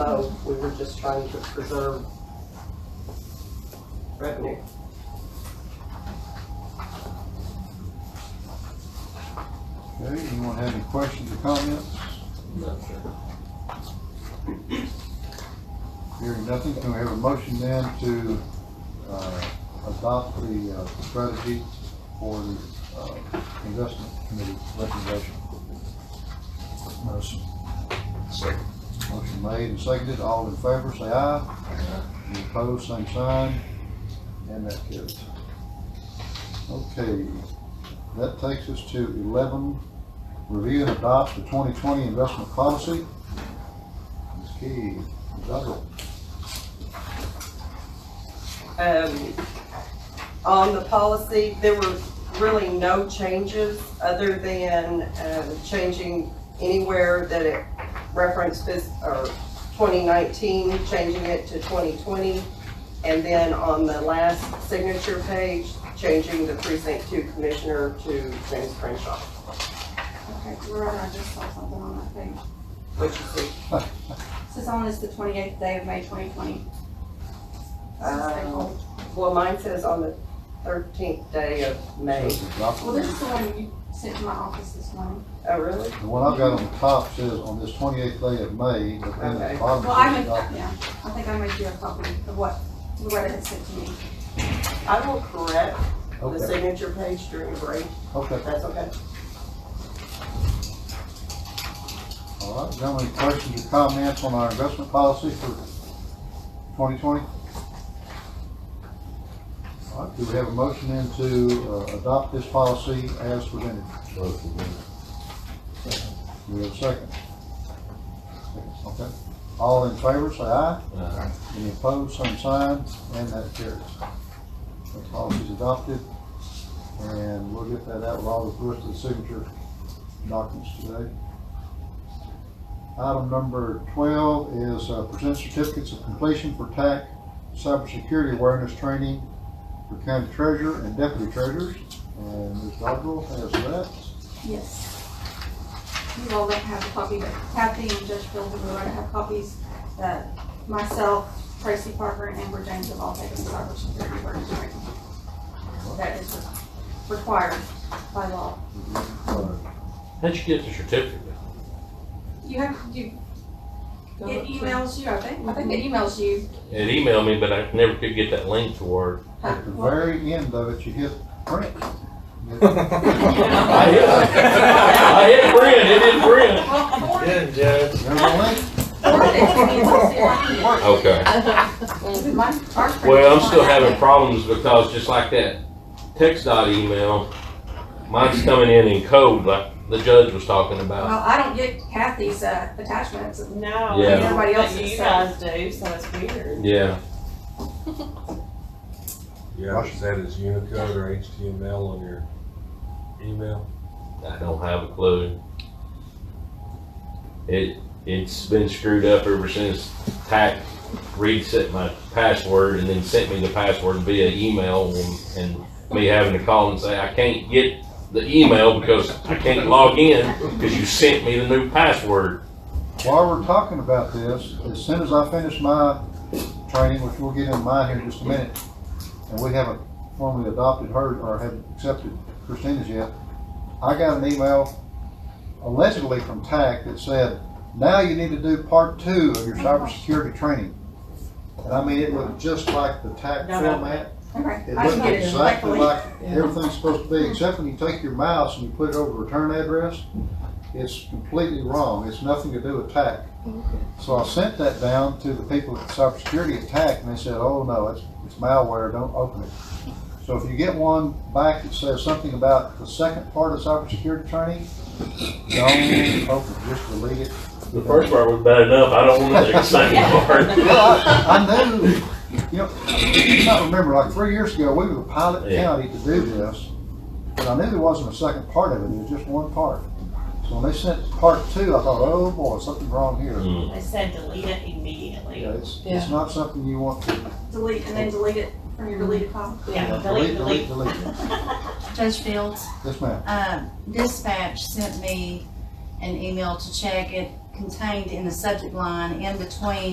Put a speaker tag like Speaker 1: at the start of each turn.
Speaker 1: so we were just trying to preserve revenue.
Speaker 2: Okay, anyone have any questions or comments? Hearing nothing, can we have a motion then to, uh, adopt the, uh, strategy for the, uh, investment committee recommendation? Motion.
Speaker 3: Second.
Speaker 2: Motion made and seconded, all in favor, say aye. Any opposed, same sign, and that carries. Okay, that takes us to eleven, review and adopt the twenty twenty investment policy. Ms. Key, Ms. Dodger.
Speaker 1: Um, on the policy, there were really no changes other than, um, changing anywhere that it referenced this, or twenty nineteen, changing it to twenty twenty. And then on the last signature page, changing the precinct two commissioner to James Crenshaw,
Speaker 4: Okay, Loretta, I just saw something on that page.
Speaker 1: which is the
Speaker 4: This is on is the twenty-eighth day of May twenty twenty. Oh.
Speaker 1: Um, Well, mine says on the thirteenth day of May.
Speaker 2: Says
Speaker 4: Well,
Speaker 2: adopted.
Speaker 4: this is the one you sent to my office this morning.
Speaker 1: Oh, really?
Speaker 2: The one I've got on the top says on this twenty-eighth day of May, but then at
Speaker 1: Okay.
Speaker 2: the bottom
Speaker 4: Well, I
Speaker 2: it says
Speaker 4: made that,
Speaker 2: adopted.
Speaker 4: yeah, I think I made you a copy of what Loretta had sent to me.
Speaker 1: I will correct the
Speaker 2: Okay,
Speaker 1: signature page during break, if
Speaker 2: okay,
Speaker 1: that's okay.
Speaker 2: all right, gentlemen, any questions or comments on our investment policy for twenty twenty? All right, do we have a motion then to uh, adopt this policy as presented? Do we have a second? Okay, all in favor, say aye.
Speaker 3: Aye.
Speaker 2: Any opposed, same sign, and that carries. The policy's adopted, and we'll get that out with all the rest of the signature documents today. Item number twelve is uh, present certificates of completion for TAC cybersecurity awareness training for county treasurer and deputy treasurers. And Ms. Dodrell has that.
Speaker 4: Yes. You all don't have a copy, but Kathy and Judge Fields and Loretta have copies. Uh, myself, Tracy Parker, and Amber James have all taken cybersecurity awareness training. That is required by law.
Speaker 2: Uh,
Speaker 3: How'd you get the certificate?
Speaker 4: You have, you, it emails you, I think, I think it emails you.
Speaker 3: It emailed me, but I never could get that link to work.
Speaker 2: At the very end of it, you hit print.
Speaker 3: I hit, I hit print, it didn't print.
Speaker 4: Well, Ford,
Speaker 5: Good, Judge.
Speaker 2: There's a link.
Speaker 4: Ford is-
Speaker 3: Okay.
Speaker 4: Mine- ours prints
Speaker 3: Well, I'm
Speaker 4: on
Speaker 3: still
Speaker 4: that
Speaker 3: having
Speaker 4: day.
Speaker 3: problems because just like that text dot email, mine's coming in in code like the judge was talking about.
Speaker 4: Well, I don't get Kathy's, uh, attachments.
Speaker 6: No,
Speaker 3: Yeah.
Speaker 4: Everybody
Speaker 6: everybody
Speaker 4: else
Speaker 6: else you
Speaker 4: is-
Speaker 6: guys do, so it's weird.
Speaker 3: Yeah,
Speaker 7: Yeah, is that as Unicode or HTML on your email?
Speaker 3: I don't have a clue. It, it's been screwed up ever since Tack reset my password and then sent me the password via email and, and me having to call and say, I can't get the email because I can't log in because you sent me the new password.
Speaker 2: While we're talking about this, as soon as I finish my training, which we'll get into mine here in just a minute, and we haven't formally adopted her or have accepted Christina's yet, I got an email allegedly from TAC that said, now you need to do part two of your
Speaker 6: Uh-huh.
Speaker 2: cybersecurity training. And I mean, it looked just like the TAC
Speaker 6: No, no.
Speaker 2: format.
Speaker 4: Okay,
Speaker 2: It
Speaker 4: I
Speaker 2: looked
Speaker 4: can get it
Speaker 2: exactly
Speaker 4: directly.
Speaker 2: like everything's supposed to be, except when you take your mouse and you put it over return address, it's completely wrong. It's nothing to do with TAC. So I sent that down to the people at cybersecurity attack, and they said, oh, no, it's, it's malware, don't open it. So if you get one back that says something about the second part of cybersecurity training, don't open it, just delete it.
Speaker 3: The first part was bad enough. I don't want the second part.
Speaker 2: Well, I, I knew, you know, I can't remember, like three years ago, we were the pilot
Speaker 3: Yeah.
Speaker 2: county to do this, but I knew there wasn't a second part of it, it was just one part. So when they sent part two, I thought, oh, boy, something wrong here.
Speaker 3: Mm.
Speaker 6: They said delete it immediately.
Speaker 2: Yeah, it's, it's not something you want to
Speaker 4: Delete, and then delete it from your deleted file.
Speaker 6: Yeah, delete, delete.
Speaker 2: delete. delete.
Speaker 8: Judge Fields,
Speaker 2: Yes, ma'am.
Speaker 8: um, dispatch sent me an email to check. It contained in the subject line, in between